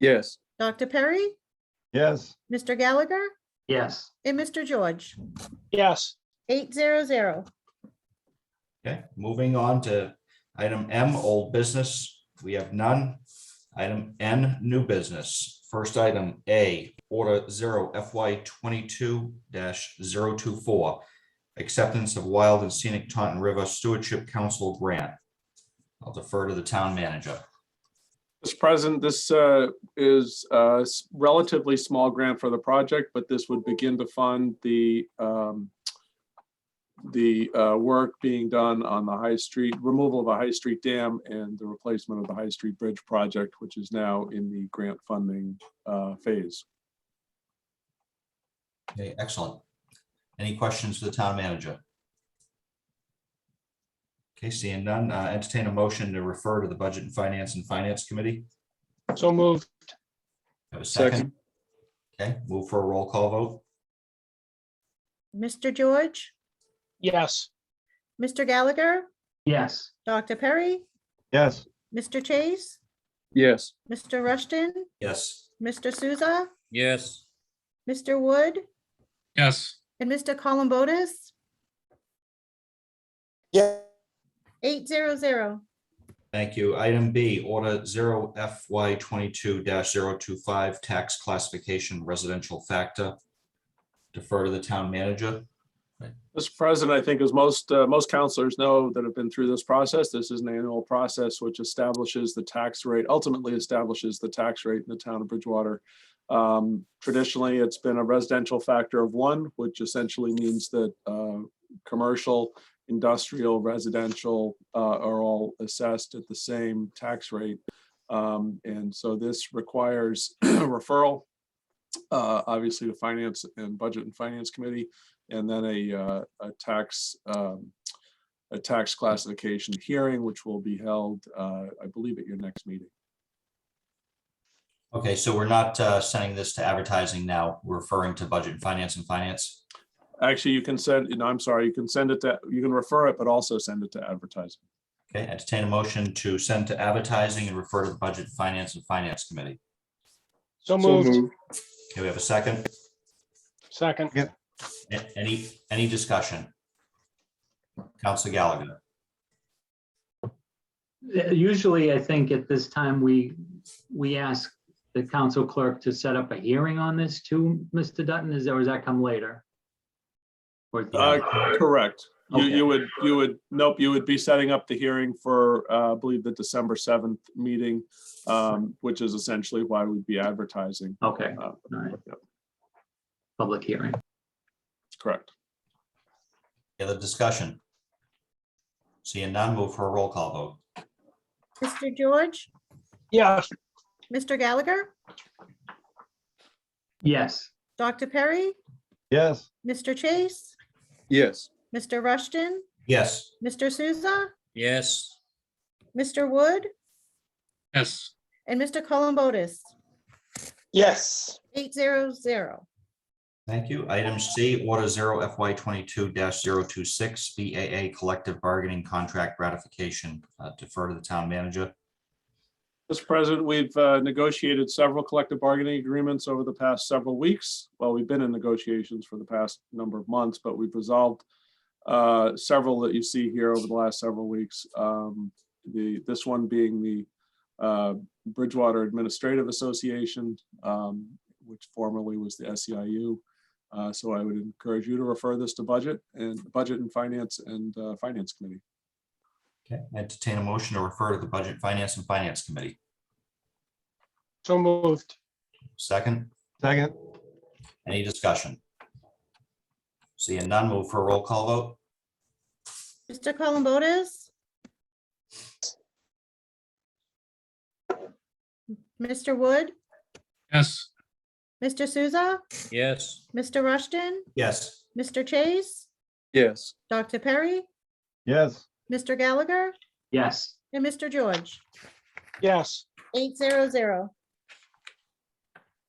Yes. Dr. Perry, Yes. Mr. Gallagher, Yes. and Mr. George. yes, Eight zero zero. Okay, moving on to item M, old business. We have none. Item N, new business. First item A, order zero FY twenty-two 24 Acceptance of Wild and Scenic Taunton River Stewardship Council Grant. I'll defer to the town manager. Mr. President, this uh, is a s- relatively small grant for the project, but this would begin to fund the um, the uh, work being done on the High Street, removal of the High Street Dam and the replacement of the High Street Bridge project, which is now in the grant funding uh, phase. Okay, excellent. Any questions for the town manager? Okay, seeing none, uh, entertain a motion to refer to the Budget and Finance and Finance Committee. so moved, Have a second? Okay, move for a roll call vote. Mr. George, yes, Mr. Gallagher, Yes. Dr. Perry, Yes. Mr. Chase, Yes. Mr. Rushton, Yes. Mr. Souza, yes. Mr. Wood, Yes. and Mr. Columbotus. Yes. Eight zero zero. Thank you. Item B, Order zero FY twenty-two 25 tax classification residential factor. Defer to the town manager. Mr. President, I think as most, uh, most counselors know that have been through this process, this is an annual process which establishes the tax rate, ultimately establishes the tax rate in the town of Bridgewater. Um, Traditionally, it's been a residential factor of one, which essentially means that uh, commercial, industrial, residential uh, are all assessed at the same tax rate. Um, And so this requires referral, uh, obviously, to Finance and Budget and Finance Committee and then a, uh, a tax, um, a tax classification hearing, which will be held, uh, I believe, at your next meeting. Okay, so we're not uh, sending this to advertising now. We're referring to Budget and Finance and Finance. Actually, you can send, no, I'm sorry, you can send it to, you can refer it, but also send it to advertising. Okay, entertain a motion to send to advertising and refer to the Budget, Finance, and Finance Committee. so moved, Okay, we have a second? second, A- Any, any discussion? Council Gallagher, Usually, I think at this time, we, we ask the council clerk to set up a hearing on this too, Mr. Dutton, is, or does that come later? Or- Uh, Correct. You, Okay. you would, you would, nope, you would be setting up the hearing for, uh, I believe, the December 7th meeting, um, which is essentially why we'd be advertising. Okay, Uh, all right, yep, public hearing. Correct. Any other discussion? Seeing none, move for a roll call vote. Mr. George, yes, Mr. Gallagher, Yes, Dr. Perry, Yes. Mr. Chase, Yes. Mr. Rushton, Yes, Mr. Souza, Yes. Mr. Wood, Yes. and Mr. Columbotus. yes, Eight zero zero. thank you. Item C, Order Zero FY twenty-two 26 BAA Collective Bargaining Contract Ratification. Uh, Defer to the town manager. Mr. President, we've uh, negotiated several collective bargaining agreements over the past several weeks. Well, we've been in negotiations for the past number of months, but we've resolved uh, several that you see here over the last several weeks. Um, The, this one being the uh, Bridgewater Administrative Association, um, which formerly was the SEIU. Uh, So I would encourage you to refer this to budget and Budget and Finance and uh, Finance Committee. Okay, entertain a motion to refer to the Budget, Finance, and Finance Committee. so moved, Second, Second. any discussion? Seeing none, move for a roll call vote. Mr. Columbotus? Mr. Wood, Yes. Mr. Souza, Yes. Mr. Rushton, Yes. Mr. Chase, Yes. Dr. Perry, Yes. Mr. Gallagher, yes. and Mr. George. yes, Eight zero zero.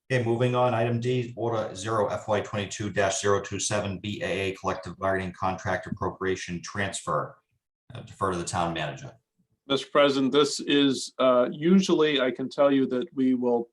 Okay, moving on, item D, order zero FY twenty-two 27 BAA collective bargaining contract appropriation transfer. Uh, Defer to the town manager. Mr. President, this is uh, usually, I can tell you that we will